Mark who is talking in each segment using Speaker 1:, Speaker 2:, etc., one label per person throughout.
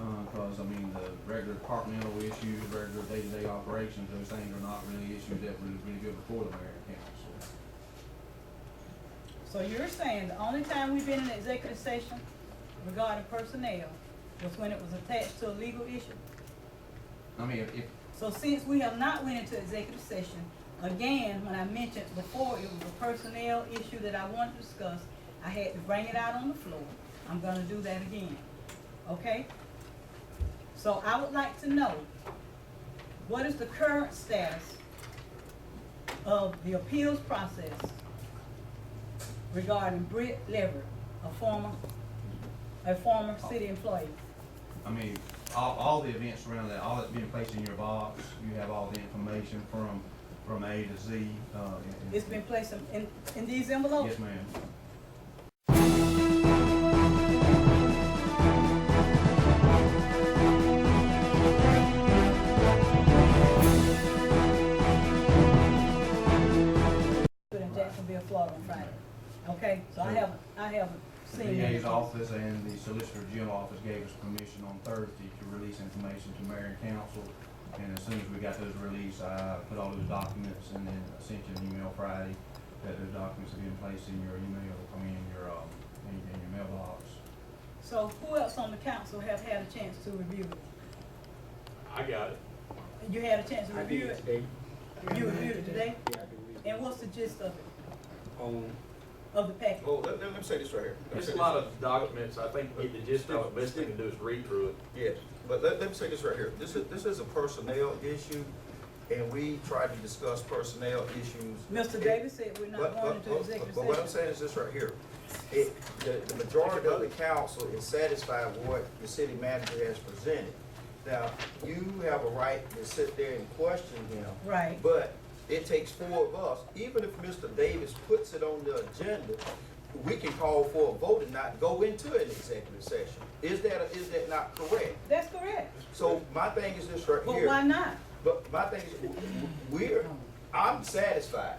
Speaker 1: Uh, regular departmental issues, regular day-to-day operations, those things are not really issues that was really good before the mayor and council.
Speaker 2: So you're saying the only time we've been in executive session regarding personnel was when it was attached to a legal issue?
Speaker 1: I mean, if, if,
Speaker 2: So since we have not went into executive session, again, when I mentioned before, it was a personnel issue that I wanted to discuss. I had to bring it out on the floor. I'm gonna do that again, okay? So I would like to know, what is the current status of the appeals process regarding Britt Leverett, a former, a former city employee?
Speaker 1: I mean, all, all the events around that, all that's being placed in your box, you have all the information from, from A to Z, uh. and- and-
Speaker 2: It's been placed in, in these envelopes?
Speaker 1: Yes, ma'am.
Speaker 2: Good in Jacksonville, Florida on Friday. Okay, so I haven't, I haven't
Speaker 1: The
Speaker 2: seen that.
Speaker 1: DA's office and the Solicitor General office gave us permission on Thursday to release information to mayor and council. And as soon as we got those released, I put all those documents and then sent you an email Friday that those documents have been placed in your email, I mean, in your, um, in, in your mailbox.
Speaker 2: So who else on the council have had a chance to review it?
Speaker 3: I got it.
Speaker 2: You had a chance to
Speaker 4: I did
Speaker 2: review
Speaker 4: it
Speaker 2: it?
Speaker 4: today.
Speaker 2: You reviewed it today?
Speaker 4: Yeah, I did it.
Speaker 2: And what's the gist of it,
Speaker 4: On,
Speaker 2: of the package?
Speaker 5: Well, Oh, let, let me say this right here. Let me
Speaker 3: There's
Speaker 5: say
Speaker 3: a
Speaker 5: this.
Speaker 3: lot of documents, I think, the gist of it, best thing to do is read through it.
Speaker 5: Yes, but let, let me say this right here. This is, this is a personnel issue, and we try to discuss personnel issues.
Speaker 2: Mr. Davis said we're not
Speaker 5: But-
Speaker 2: going
Speaker 5: but-
Speaker 2: into
Speaker 5: but-
Speaker 2: executive
Speaker 5: But what I'm
Speaker 2: session.
Speaker 5: saying is this right here. It, the, the majority of the council is satisfied with what the city manager has presented. Now, you have a right to sit there and question him.
Speaker 2: Right,
Speaker 5: But it takes four of us, even if Mr. Davis puts it on the agenda, we can call for a vote and not go into an executive session. Is that, is that not correct?
Speaker 2: that's correct.
Speaker 5: So my thing is this right
Speaker 2: But why
Speaker 5: here,
Speaker 2: not?
Speaker 5: but my thing is, w- w- we're, I'm satisfied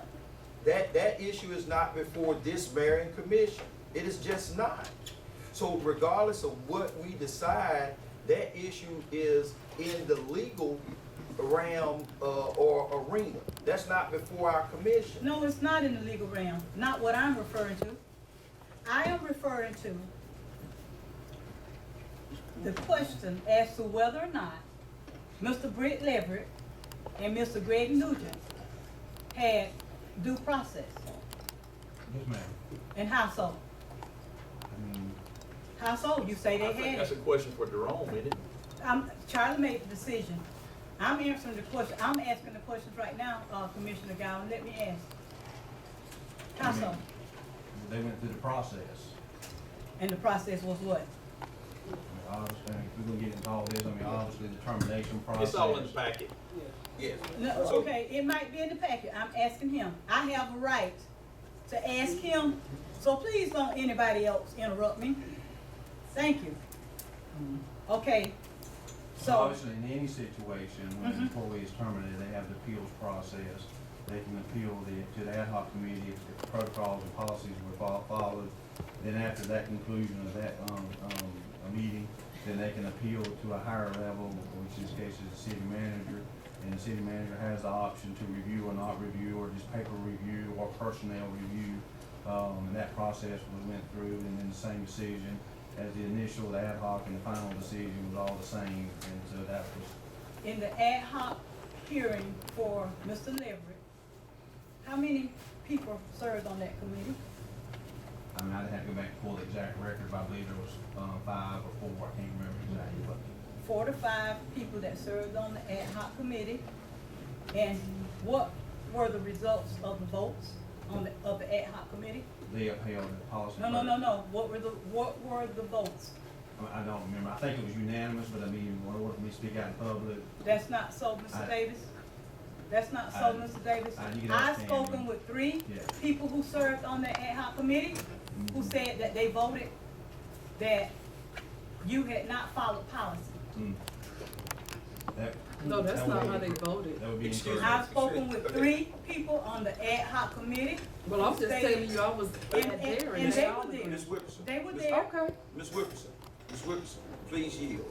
Speaker 5: that that issue is not before this mayor and commission. It is just not. So regardless of what we decide, that issue is in the legal realm, uh, or arena. That's not before our commission.
Speaker 2: No, it's not in the legal realm, not what I'm referring to. I am referring to the question as to whether or not Mr. Britt Leverett and Mr. Greg Nugent had due process
Speaker 1: Yes, ma'am.
Speaker 2: and household.
Speaker 1: I mean,
Speaker 2: Household, you say
Speaker 3: I
Speaker 2: they
Speaker 3: think
Speaker 2: had
Speaker 3: that's a
Speaker 2: it.
Speaker 3: question for Jerome, isn't it?
Speaker 2: I'm, Charlie made the decision. I'm answering the question, I'm asking the questions right now, uh, Commissioner Gowan, let me ask.
Speaker 3: Mm-hmm.
Speaker 2: Household,
Speaker 1: they went through the process.
Speaker 2: and the process was what?
Speaker 1: I mean, Obviously, if we're gonna get into all this, I mean, obviously, the termination process.
Speaker 3: It's all in the packet.
Speaker 5: Yes.
Speaker 2: No,
Speaker 5: So-
Speaker 2: okay, it might be in the packet, I'm asking him, I have a right to ask him, so please don't anybody else interrupt me. Thank you. Okay, so,
Speaker 1: Obviously, in any situation, when an
Speaker 2: Mhm.
Speaker 1: employee is terminated, they have the appeals process. They can appeal the, to the ad hoc committee if the protocols and policies were fol- followed. Then after that conclusion of that, um, um, a meeting, then they can appeal to a higher level, which in this case is the city manager. And the city manager has the option to review or not review, or just paper review, or personnel review. Um, and that process was went through, and then the same decision as the initial, the ad hoc, and the final decision was all the same, and so that was,
Speaker 2: in the ad hoc hearing for Mr. Leverett, how many people served on that committee?
Speaker 1: I mean, I'd have to go back and pull the exact record, but I believe there was, um, five or four, I can't remember exactly, but.
Speaker 2: Four to five people that served on the ad hoc committee, and what were the results of the votes on the, of the ad hoc committee?
Speaker 1: They upheld the policy.
Speaker 2: No, no, no, no, what were the, what were the votes?
Speaker 1: I mean, I don't remember, I think it was unanimous, but I mean, in order for me to speak out in public,
Speaker 2: That's not so,
Speaker 1: I-
Speaker 2: Mr. Davis. That's not so,
Speaker 1: I-
Speaker 2: Mr. Davis.
Speaker 1: I- you can
Speaker 2: I've
Speaker 1: understand me.
Speaker 2: spoken with three
Speaker 1: Yeah. Mm-hmm.
Speaker 2: people who served on the ad hoc committee, who said that they voted that you had not followed policy.
Speaker 1: mm, that.
Speaker 6: No, that's
Speaker 1: that
Speaker 6: not
Speaker 1: would-
Speaker 6: how they voted.
Speaker 1: That would be
Speaker 5: Excuse me.
Speaker 1: incorrect.
Speaker 2: I've spoken with three people on the ad hoc committee.
Speaker 6: Well, I'm just telling you, I was
Speaker 2: And-
Speaker 6: at
Speaker 2: and-
Speaker 6: there
Speaker 2: and
Speaker 6: and
Speaker 2: they
Speaker 6: they all
Speaker 2: were
Speaker 6: agreed.
Speaker 5: Ms. Whipperson.
Speaker 2: They were
Speaker 5: Ms.
Speaker 2: there.
Speaker 6: Okay.
Speaker 5: Ms. Whipperson, Ms. Whipperson, please yield.